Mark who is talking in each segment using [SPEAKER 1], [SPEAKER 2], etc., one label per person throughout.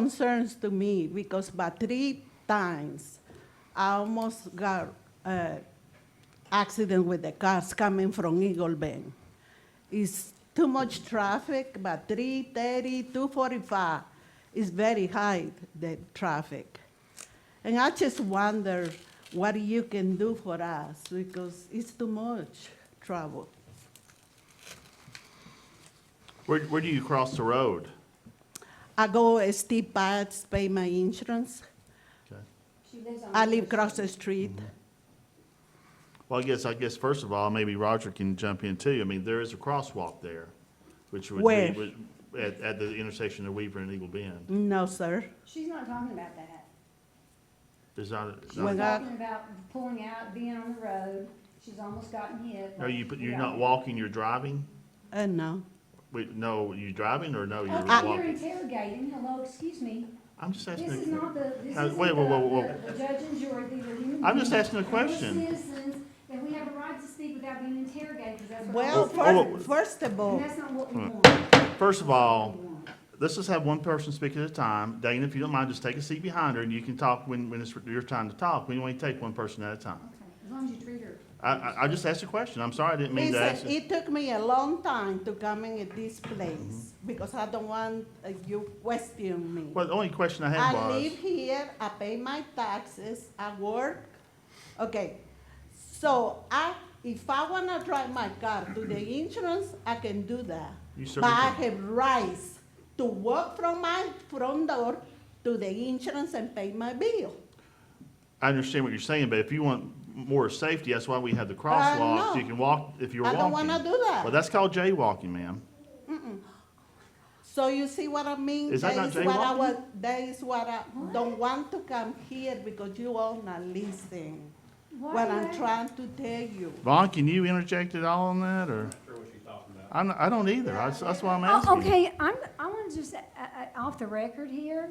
[SPEAKER 1] concerns to me because by three times, I almost got uh, accident with the cars coming from Eagle Bend. It's too much traffic, but 330, 245 is very high, the traffic. And I just wonder what you can do for us because it's too much trouble.
[SPEAKER 2] Where, where do you cross the road?
[SPEAKER 1] I go uh, steep paths, pay my insurance. I live across the street.
[SPEAKER 2] Well, I guess, I guess first of all, maybe Roger can jump in too. I mean, there is a crosswalk there, which would
[SPEAKER 1] Where?
[SPEAKER 2] be, would- at, at the intersection of Weaver and Eagle Bend.
[SPEAKER 1] No, sir.
[SPEAKER 3] She's not talking about that.
[SPEAKER 2] Is that, is
[SPEAKER 1] Well,
[SPEAKER 3] She's
[SPEAKER 2] that-
[SPEAKER 1] that-
[SPEAKER 3] talking about pulling out, being on the road. She's almost gotten hit.
[SPEAKER 2] are you, you're
[SPEAKER 3] Yeah.
[SPEAKER 2] not walking, you're driving?
[SPEAKER 1] Uh, no.
[SPEAKER 2] Wait, no, you driving or no, you're
[SPEAKER 3] Okay, you're
[SPEAKER 2] walking?
[SPEAKER 3] Oh, interrogating. Hello, excuse me.
[SPEAKER 2] I'm just asking.
[SPEAKER 3] This is
[SPEAKER 2] a-
[SPEAKER 3] not the, this
[SPEAKER 2] Uh,
[SPEAKER 3] isn't
[SPEAKER 2] wait, whoa, whoa, whoa.
[SPEAKER 3] the, the judge and jury, these are human
[SPEAKER 2] I'm just
[SPEAKER 3] beings.
[SPEAKER 2] asking a
[SPEAKER 3] And we're
[SPEAKER 2] question.
[SPEAKER 3] citizens, and we have a right to speak without being interrogated, 'cause that's what
[SPEAKER 1] Well,
[SPEAKER 3] all
[SPEAKER 2] fir-
[SPEAKER 3] citizens-
[SPEAKER 2] oh.
[SPEAKER 1] first, first of all,
[SPEAKER 3] And that's not what we
[SPEAKER 2] Hmm.
[SPEAKER 3] want.
[SPEAKER 2] First of
[SPEAKER 3] We
[SPEAKER 2] all,
[SPEAKER 3] want-
[SPEAKER 2] let's just have one person speak at a time. Dana, if you don't mind, just take a seat behind her and you can talk when, when it's your time to talk. We only take one person at a time.
[SPEAKER 3] okay, As long as you treat her.
[SPEAKER 2] I, I, I just asked a question. I'm sorry, I didn't mean to ask.
[SPEAKER 1] Listen, it took me a long time to come in at this place because I don't want uh, you question me.
[SPEAKER 2] Mm-hmm. Well, the only question I had
[SPEAKER 1] I
[SPEAKER 2] was.
[SPEAKER 1] live here, I pay my taxes, I work. Okay, so I, if I wanna drive my car to the insurance, I can do that.
[SPEAKER 2] You
[SPEAKER 1] But
[SPEAKER 2] certainly
[SPEAKER 1] I
[SPEAKER 2] can.
[SPEAKER 1] have rights to walk from my front door to the insurance and pay my bill.
[SPEAKER 2] I understand what you're saying, but if you want more safety, that's why we
[SPEAKER 3] Uh,
[SPEAKER 2] have the
[SPEAKER 1] no.
[SPEAKER 2] crosswalks. You can walk if you're
[SPEAKER 1] I
[SPEAKER 2] walking.
[SPEAKER 1] don't wanna do
[SPEAKER 2] Well,
[SPEAKER 1] that.
[SPEAKER 2] that's called jaywalking, ma'am.
[SPEAKER 1] So you see what I mean?
[SPEAKER 2] Is that not
[SPEAKER 1] what I
[SPEAKER 2] jaywalking?
[SPEAKER 1] wa- That is what I don't want to come here because you all not listening.
[SPEAKER 3] Why
[SPEAKER 1] What
[SPEAKER 3] do
[SPEAKER 1] I'm
[SPEAKER 3] they-
[SPEAKER 1] trying to tell you.
[SPEAKER 2] Vaughn, can you interject at all on that, or? I'm not- I don't either. That's, that's why I'm
[SPEAKER 3] Oh,
[SPEAKER 2] asking.
[SPEAKER 3] Okay, I'm, I want to just, uh, uh, off the record here.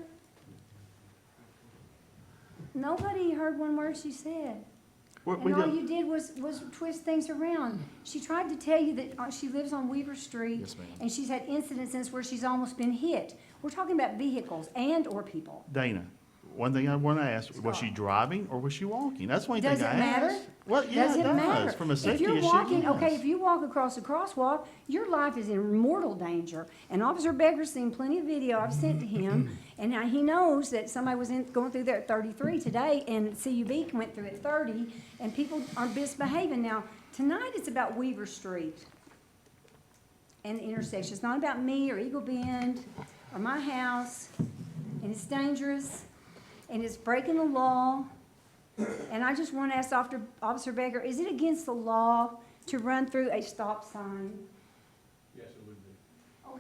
[SPEAKER 3] Nobody heard one word she said.
[SPEAKER 2] We- we
[SPEAKER 3] And all
[SPEAKER 2] don't-
[SPEAKER 3] you did was, was twist things around. She tried to tell you that uh, she lives on Weaver Street.
[SPEAKER 2] Yes, ma'am.
[SPEAKER 3] And she's had incidences where she's almost been hit. We're talking about vehicles and/or people.
[SPEAKER 2] Dana, one thing I want to ask, was she driving or was she walking? That's the only thing I
[SPEAKER 3] Does
[SPEAKER 2] asked.
[SPEAKER 3] it matter?
[SPEAKER 2] Well, yeah,
[SPEAKER 3] Does
[SPEAKER 2] it
[SPEAKER 3] it matter?
[SPEAKER 2] does. From a
[SPEAKER 3] If
[SPEAKER 2] safety issue,
[SPEAKER 3] you're walking, okay,
[SPEAKER 2] yes.
[SPEAKER 3] if you walk across the crosswalk, your life is in mortal danger. And Officer Becker's seen plenty of video I've sent to him, and now he knows that somebody was in, going through there at thirty-three today, and CUB went through at thirty, and people are misbehaving. Now, tonight it's about Weaver Street and the intersection. It's not about me or Eagle Bend or my house, and it's dangerous, and it's breaking the law. And I just want to ask Officer, Officer Baker, is it against the law to run through a stop sign?
[SPEAKER 4] Yes, it would be.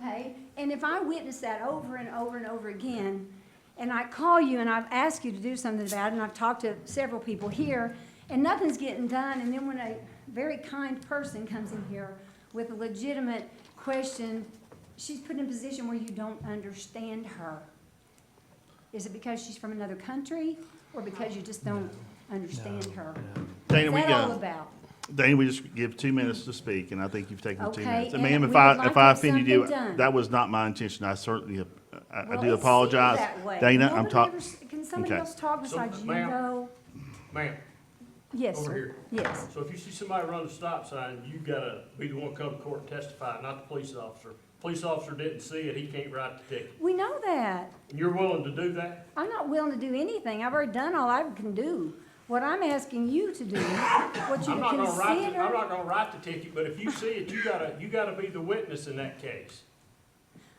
[SPEAKER 3] Okay, and if I witness that over and over and over again, and I call you and I've asked you to do something about it, and I've talked to several people here, and nothing's getting done, and then when a very kind person comes in here with a legitimate question, she's put in a position where you don't understand her. Is it because she's from another country, or because you just don't understand her?
[SPEAKER 2] Dana, we
[SPEAKER 3] What's that all
[SPEAKER 2] got,
[SPEAKER 3] about?
[SPEAKER 2] Dana, we just give two minutes to speak, and I think you've taken the two
[SPEAKER 3] Okay,
[SPEAKER 2] minutes. And
[SPEAKER 3] and
[SPEAKER 2] ma'am,
[SPEAKER 3] we
[SPEAKER 2] if
[SPEAKER 3] would
[SPEAKER 2] I,
[SPEAKER 3] like
[SPEAKER 2] if
[SPEAKER 3] to
[SPEAKER 2] I
[SPEAKER 3] have
[SPEAKER 2] offended you,
[SPEAKER 3] something done.
[SPEAKER 2] that was not my intention. I certainly, I, I
[SPEAKER 3] Well,
[SPEAKER 2] do
[SPEAKER 3] it
[SPEAKER 2] apologize.
[SPEAKER 3] seems that way.
[SPEAKER 2] Dana, I'm
[SPEAKER 3] Nobody
[SPEAKER 2] talking.
[SPEAKER 3] ever s- Can somebody
[SPEAKER 2] Okay.
[SPEAKER 3] else talk
[SPEAKER 4] So,
[SPEAKER 3] besides you,
[SPEAKER 4] ma'am?
[SPEAKER 3] though?
[SPEAKER 4] Ma'am,
[SPEAKER 3] Yes,
[SPEAKER 4] Over
[SPEAKER 3] sir.
[SPEAKER 4] here.
[SPEAKER 3] Yes.
[SPEAKER 4] so if you see somebody run a stop sign, you gotta be the one come to court and testify, not the police officer. Police officer didn't see it, he can't write the ticket.
[SPEAKER 3] We know that.
[SPEAKER 4] And you're willing to do that?
[SPEAKER 3] I'm not willing to do anything. I've already done all I can do. What I'm asking you to do, what you
[SPEAKER 4] I'm not gonna write, the- I'm
[SPEAKER 3] consider.
[SPEAKER 4] not gonna write the ticket, but if you see it, you gotta, you gotta be the witness in that case.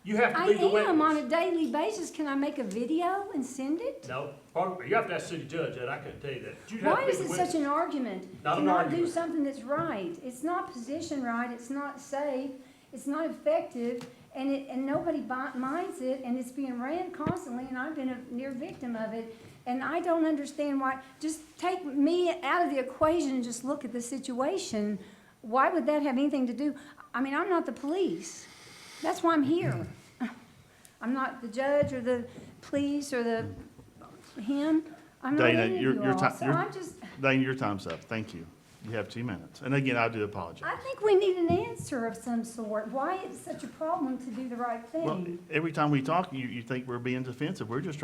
[SPEAKER 4] You have
[SPEAKER 3] I
[SPEAKER 4] to be the witness.
[SPEAKER 3] am on a daily basis. Can I make a video and send it?
[SPEAKER 4] No, probably, you have to ask city judge that, I couldn't tell you that. You'd have
[SPEAKER 3] Why
[SPEAKER 4] to be
[SPEAKER 3] is
[SPEAKER 4] the
[SPEAKER 3] it
[SPEAKER 4] witness.
[SPEAKER 3] such an argument?
[SPEAKER 4] Not
[SPEAKER 3] to
[SPEAKER 4] an
[SPEAKER 3] do
[SPEAKER 4] argument.
[SPEAKER 3] something that's right. It's not position right, it's not safe, it's not effective, and it, and nobody bi- minds it, and it's being ran constantly, and I've been a near victim of it. And I don't understand why, just take me out of the equation and just look at the situation. Why would that have anything to do? I mean, I'm not the police. That's why I'm here. I'm not the judge or the police or the, him. I'm not
[SPEAKER 2] Dana,
[SPEAKER 3] any of
[SPEAKER 2] your-
[SPEAKER 3] you
[SPEAKER 2] your
[SPEAKER 3] all.
[SPEAKER 2] ti-
[SPEAKER 3] So
[SPEAKER 2] your-
[SPEAKER 3] I'm just,
[SPEAKER 2] Dana, your time's up. Thank you. You have two minutes. And again, I do
[SPEAKER 3] I
[SPEAKER 2] apologize.
[SPEAKER 3] think we need an answer of some sort, why it's such a problem to do the right
[SPEAKER 2] Well,
[SPEAKER 3] thing.
[SPEAKER 2] every time we talk, you, you think we're being defensive. We're just